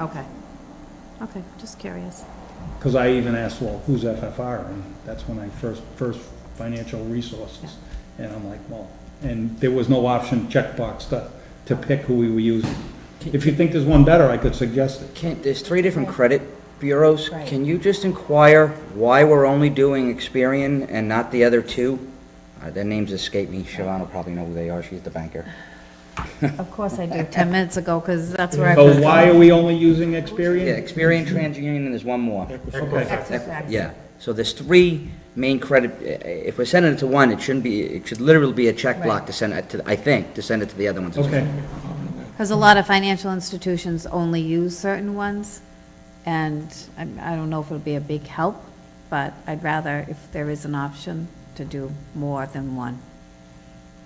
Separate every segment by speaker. Speaker 1: Okay. Okay, just curious.
Speaker 2: Because I even asked, well, who's FFR? And that's when I first, first financial resources. And I'm like, well, and there was no option checkbox to, to pick who we were using. If you think there's one better, I could suggest it.
Speaker 3: Can, there's three different credit bureaus.
Speaker 1: Right.
Speaker 3: Can you just inquire why we're only doing Experian and not the other two? Uh, Their names escape me. Siobhan will probably know who they are. She's the banker.
Speaker 1: Of course I do, 10 minutes ago, because that's where I was
Speaker 2: So
Speaker 1: going.
Speaker 2: Oh, why are we only using
Speaker 3: Yeah,
Speaker 2: Experian?
Speaker 3: Experian, TransUnion, and there's one more.
Speaker 2: Okay,
Speaker 1: Mm-hmm. Equifax.
Speaker 3: Yeah, so there's three main credit, i- i- if we're sending it to one, it shouldn't be, it should literally be a check block to send it to, I think, to send it to the other ones. as well.
Speaker 2: okay.
Speaker 1: Because a lot of financial institutions only use certain ones, and I I don't know if it'll be a big help, but I'd rather, if there is an option, to do more than one.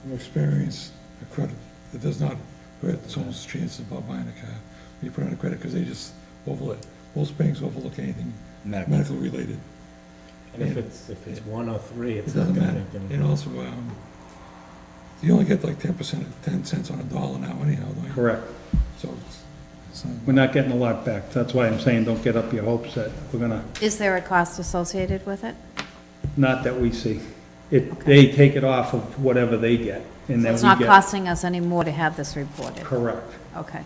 Speaker 4: From experience, a credit, it does not hurt someone's chances about buying a car. You put on a credit because they just overlook, most banks overlook anything
Speaker 3: Medical.
Speaker 4: medical related.
Speaker 5: And if it's, if it's one or three,
Speaker 4: It
Speaker 5: it's not
Speaker 4: doesn't
Speaker 5: gonna
Speaker 4: matter.
Speaker 5: make any
Speaker 4: And also, um, you only get like ten percent, ten cents on a dollar now anyhow, don't you?
Speaker 2: Correct.
Speaker 4: So it's, it's not.
Speaker 2: We're not getting a lot back. That's why I'm saying, don't get up your hopes that we're gonna,
Speaker 1: Is there a cost associated with it?
Speaker 2: not that we see. It, they take it off of whatever they get, and then
Speaker 1: It's
Speaker 2: we
Speaker 1: not
Speaker 2: get.
Speaker 1: costing us any more to have this reported?
Speaker 2: Correct.
Speaker 1: Okay.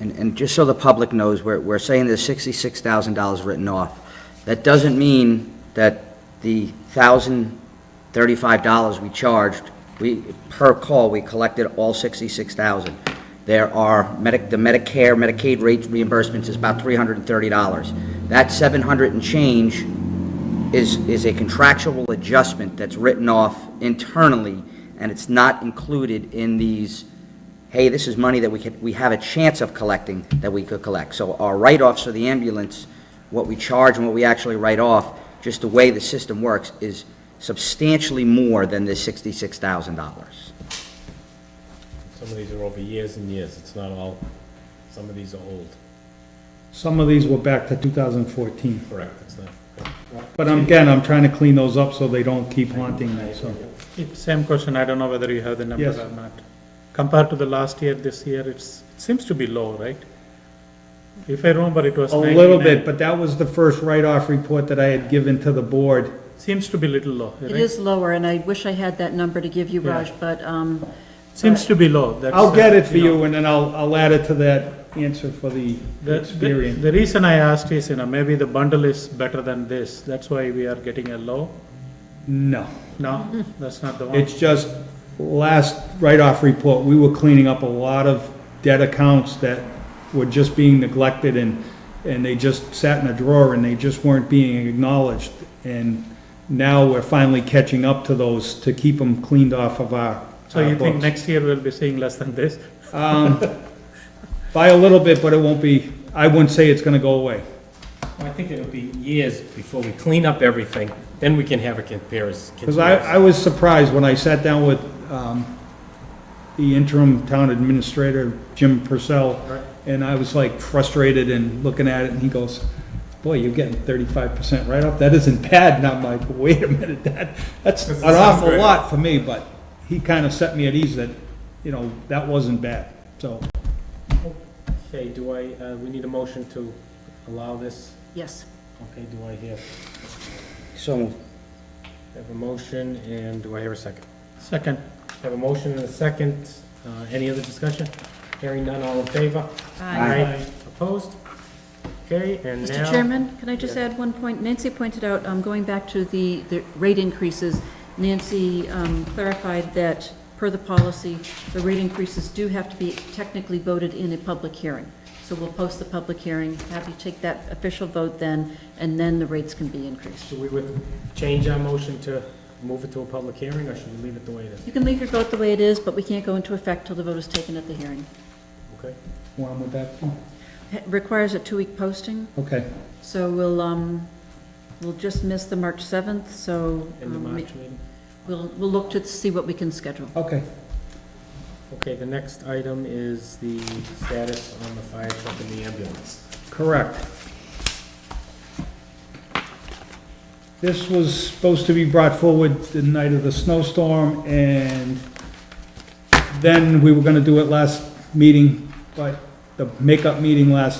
Speaker 3: And, and just so the public knows, we're, we're saying there's sixty-six thousand dollars written off. That doesn't mean that the thousand thirty-five dollars we charged, we, per call, we collected all sixty-six thousand. There are medic, the Medicare, Medicaid rate reimbursements is about three hundred and thirty dollars. That seven hundred and change is, is a contractual adjustment that's written off internally, and it's not included in these, hey, this is money that we could, we have a chance of collecting, that we could collect. So our write-offs for the ambulance, what we charge and what we actually write off, just the way the system works, is substantially more than this sixty-six thousand dollars.
Speaker 5: Some of these are over years and years, it's not all, some of these are old,
Speaker 2: Some of these were back to 2014.
Speaker 5: correct, it's not.
Speaker 2: But I'm- again, I'm trying to clean those up so they don't keep haunting me, so.
Speaker 6: It- Same question, I don't know whether you have the number
Speaker 2: Yes.
Speaker 6: or not. Compared to the last year, this year, it's, it seems to be low, right? If I remember, it was
Speaker 2: A little
Speaker 6: 99.
Speaker 2: bit, but that was the first write-off report that I had given to the board.
Speaker 6: Seems to be little low, right?
Speaker 7: It is lower, and I wish I had that number to give you, Raj, but, um,
Speaker 6: Seems to be low. That's,
Speaker 2: I'll get
Speaker 6: uh,
Speaker 2: it for
Speaker 6: know,
Speaker 2: you, and then I'll, I'll add it to that answer for the
Speaker 6: The, the,
Speaker 2: experience.
Speaker 6: the reason I asked is, you know, maybe the bundle is better than this, that's why we are getting a low.
Speaker 2: No,
Speaker 7: Mm-hmm.
Speaker 6: No, that's not the one.
Speaker 2: it's just, last write-off report, we were cleaning up a lot of debt accounts that were just being neglected, and, and they just sat in a drawer, and they just weren't being acknowledged. And now we're finally catching up to those to keep them cleaned off of our
Speaker 6: So you
Speaker 2: our
Speaker 6: think
Speaker 2: books.
Speaker 6: next year we'll be seeing less than this?
Speaker 2: By a little bit, but it won't be, I wouldn't say it's gonna go away.
Speaker 5: I think it'll be years before we clean up everything, then we can have a comparison.
Speaker 2: Because I, I was surprised when I sat down with, um, the interim town administrator, Jim Purcell, and I was like frustrated and looking at it, and he goes, boy, you're getting thirty-five percent write-off, that isn't bad, and I'm like, wait a minute, that, that's an awful lot for me, but he kinda set me at ease that, you know, that wasn't bad, so.
Speaker 5: Okay, do I, uh, we need a motion to allow this,
Speaker 7: yes.
Speaker 5: okay, do I hear,
Speaker 3: So,
Speaker 5: have a motion, and do I hear a second?
Speaker 6: Second,
Speaker 5: Have a motion and a second, uh, any other discussion? Hearing none, all in favor? Opposed? Okay, and now.
Speaker 7: Mr. Chairman, can I just add one point? Nancy pointed out, um, going back to the, the rate increases, Nancy um, clarified that, per the policy, the rate increases do have to be technically voted in a public hearing. So we'll post the public hearing, have you take that official vote then, and then the rates can be increased.
Speaker 5: Should we with, change our motion to move it to a public hearing, or should we leave it the way it is?
Speaker 7: You can leave your vote the way it is, but we can't go into effect till the vote is taken at the hearing.
Speaker 5: Okay?
Speaker 2: Where I'm with that?
Speaker 7: It Requires a two-week posting,
Speaker 2: Okay,
Speaker 7: so we'll, um, we'll just miss the March 7th, so
Speaker 5: In the
Speaker 7: um,
Speaker 5: March meeting?
Speaker 7: we'll, we'll look to see what we can schedule.
Speaker 2: okay.
Speaker 5: Okay, the next item is the status on the fire truck and the ambulance.
Speaker 2: Correct. This was supposed to be brought forward the night of the snowstorm, and then we were gonna do it last meeting, but the makeup meeting last